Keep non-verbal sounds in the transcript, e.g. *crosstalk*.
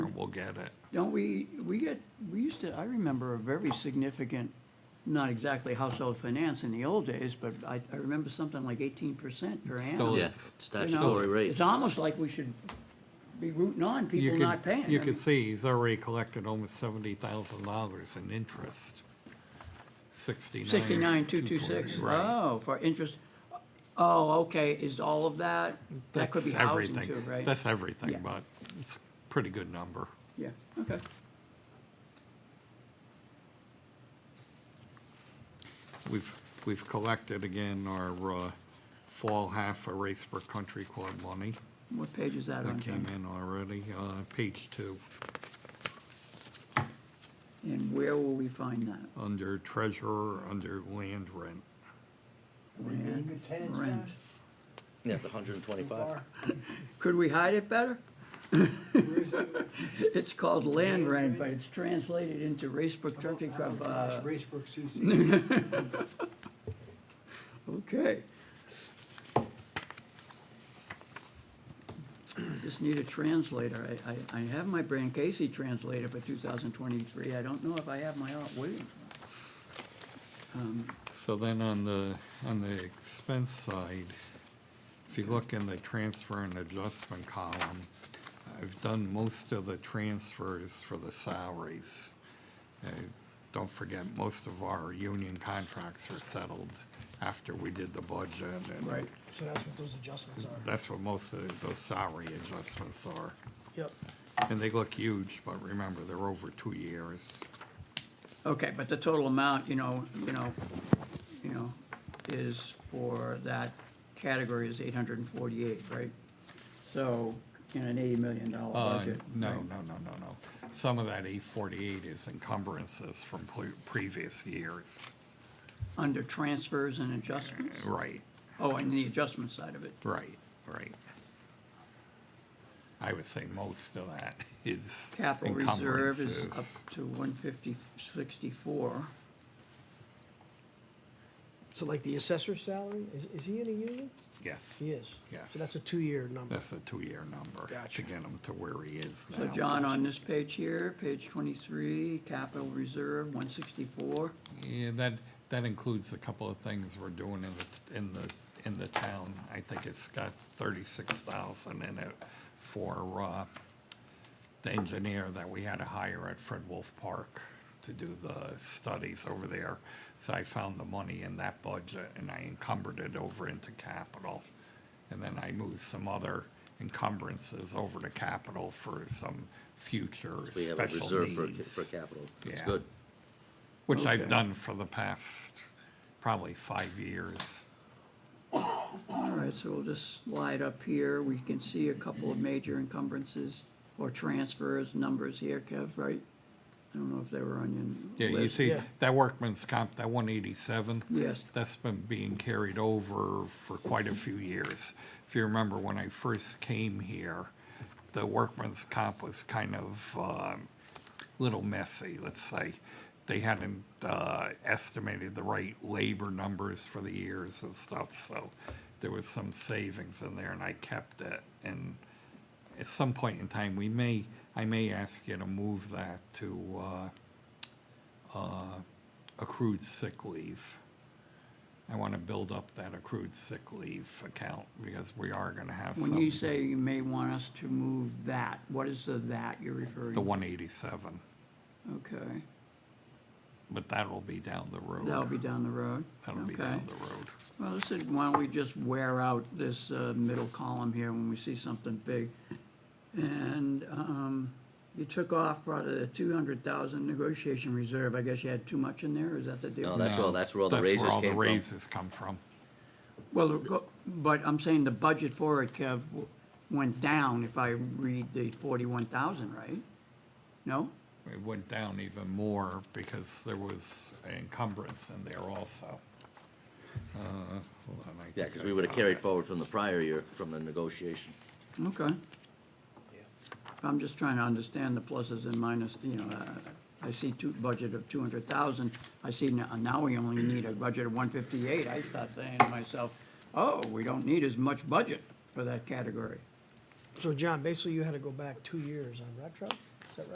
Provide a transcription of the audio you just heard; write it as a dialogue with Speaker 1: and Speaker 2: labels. Speaker 1: get it.
Speaker 2: Don't we, we get, we used to, I remember a very significant, not exactly household finance in the old days, but I, I remember something like eighteen percent per annum.
Speaker 1: Stole
Speaker 2: you
Speaker 1: it.
Speaker 2: know?
Speaker 3: Yeah, statutory rate.
Speaker 2: It's almost like we should be rooting on
Speaker 1: You
Speaker 2: people
Speaker 1: could-
Speaker 2: not paying.
Speaker 1: You
Speaker 2: I
Speaker 1: can
Speaker 2: mean,
Speaker 1: see he's already collected almost seventy thousand dollars in interest. Sixty-nine.
Speaker 2: Sixty-nine, two, two, six.
Speaker 1: Right.
Speaker 2: Oh, for interest, oh, okay, is all of that? That could be
Speaker 1: That's
Speaker 2: housing
Speaker 1: everything.
Speaker 2: too, right?
Speaker 1: That's
Speaker 2: Yeah.
Speaker 1: everything, but it's a pretty good number.
Speaker 2: Yeah, okay.
Speaker 1: We've, we've collected again our uh, fall half of Racebrook Country Club money
Speaker 2: What page is that on?
Speaker 1: that came
Speaker 2: Tom?
Speaker 1: in already, uh, page two,
Speaker 2: And where will we find that?
Speaker 1: under treasurer, under land rent.
Speaker 4: We being good tenants, John?
Speaker 2: Rent.
Speaker 3: Yeah, the hundred and
Speaker 4: Too
Speaker 3: twenty-five.
Speaker 4: far?
Speaker 2: Could we hide it better? *laughs*
Speaker 4: Where is it?
Speaker 2: It's called land rent, but it's translated into Racebrook Country
Speaker 4: Oh,
Speaker 2: Club.
Speaker 4: gosh,
Speaker 2: uh,
Speaker 4: Racebrook CC.
Speaker 2: Okay. Just need a translator. I, I, I have my Brand Casey translator for two thousand twenty-three. I don't know if I have my Art Williams.
Speaker 1: So then on the, on the expense side, if you look in the transfer and adjustment column, I've done most of the transfers for the salaries. Uh, Don't forget, most of our union contracts were settled after we did the budget. and
Speaker 5: So that's what those adjustments are.
Speaker 1: That's what most of those salary adjustments are.
Speaker 5: Yep.
Speaker 1: And they look huge, but remember, they're over two years.
Speaker 2: Okay, but the total amount, you know, you know, you know, is for that category is eight hundred and forty-eight, right? So, in an eighty million dollar
Speaker 1: Uh,
Speaker 2: budget.
Speaker 1: No,
Speaker 2: right?
Speaker 1: no, no, no, no. Some of that eight forty-eight is encumbrances from pre- previous years.
Speaker 2: Under transfers and adjustments?
Speaker 1: Right,
Speaker 2: Oh, and the adjustment side of it.
Speaker 1: right, right. I would say most of that is
Speaker 2: Capital reserve is
Speaker 1: encumbrances.
Speaker 2: up to one fifty, sixty-four.
Speaker 5: So like the assessor's salary, is, is he in a union?
Speaker 1: Yes,
Speaker 5: He is.
Speaker 1: Yes.
Speaker 5: So that's a two-year number.
Speaker 1: that's a two-year number. To
Speaker 5: Gotcha.
Speaker 1: get him to where he is now.
Speaker 2: So John, on this page here, page twenty-three, capital reserve, one sixty-four.
Speaker 1: Yeah, that, that includes a couple of things we're doing in the, in the, in the town. I think it's got thirty-six thousand in it for, uh, the engineer that we had to hire at Fred Wolf Park to do the studies over there. So I found the money in that budget and I encumbered it over into capital. And then I moved some other encumbrances over to capital for some future special needs.
Speaker 3: We have a reserve for, for capital. That's
Speaker 1: Yeah.
Speaker 3: good.
Speaker 1: Which I've
Speaker 2: Okay.
Speaker 1: done for the past probably five years.
Speaker 2: All right, so we'll just slide up here. We can see a couple of major encumbrances or transfers, numbers here, Kev, right? I don't know if they were on
Speaker 1: Yeah,
Speaker 2: your
Speaker 1: you
Speaker 2: list.
Speaker 1: see,
Speaker 5: yeah.
Speaker 1: that workman's comp, that one eighty-seven.
Speaker 2: Yes.
Speaker 1: That's been being carried over for quite a few years. If you remember, when I first came here, the workman's comp was kind of, um, little messy, let's say. They hadn't, uh, estimated the right labor numbers for the years and stuff, so there was some savings in there and I kept it. And at some point in time, we may, I may ask you to move that to, uh, accrued sick leave. I want to build up that accrued sick leave account because we are going to have some.
Speaker 2: When you say you may want us to move that, what is the that you're referring?
Speaker 1: The
Speaker 2: to?
Speaker 1: one eighty-seven,
Speaker 2: Okay,
Speaker 1: but that'll be down the road.
Speaker 2: that'll be down the road?
Speaker 1: That'll be
Speaker 2: Okay.
Speaker 1: down the road.
Speaker 2: Well, this is, why don't we just wear out this uh, middle column here when we see something big? And um, you took off out of the two hundred thousand negotiation reserve, I guess you had too much in there, is that the deal?
Speaker 3: No, that's all, that's where all the
Speaker 1: That's where
Speaker 3: raises
Speaker 1: all the
Speaker 3: came from.
Speaker 1: raises come from.
Speaker 2: Well, the go- but I'm saying the budget for it, Kev, w- went down if I read the forty-one thousand, right? No?
Speaker 1: It went down even more because there was an encumbrance in there also. Uh, hold on, I
Speaker 3: Yeah,
Speaker 1: think
Speaker 3: because
Speaker 1: I
Speaker 3: we would have
Speaker 1: found
Speaker 3: carried
Speaker 1: it.
Speaker 3: forward from the prior year, from the negotiation.
Speaker 2: Okay. I'm just trying to understand the pluses and minuses, you know, uh, I see two, budget of two hundred thousand, I see now, now we only need a budget of one fifty-eight, I start saying to myself, oh, we don't need as much budget for that category.
Speaker 5: So John, basically you had to go back two years on retro?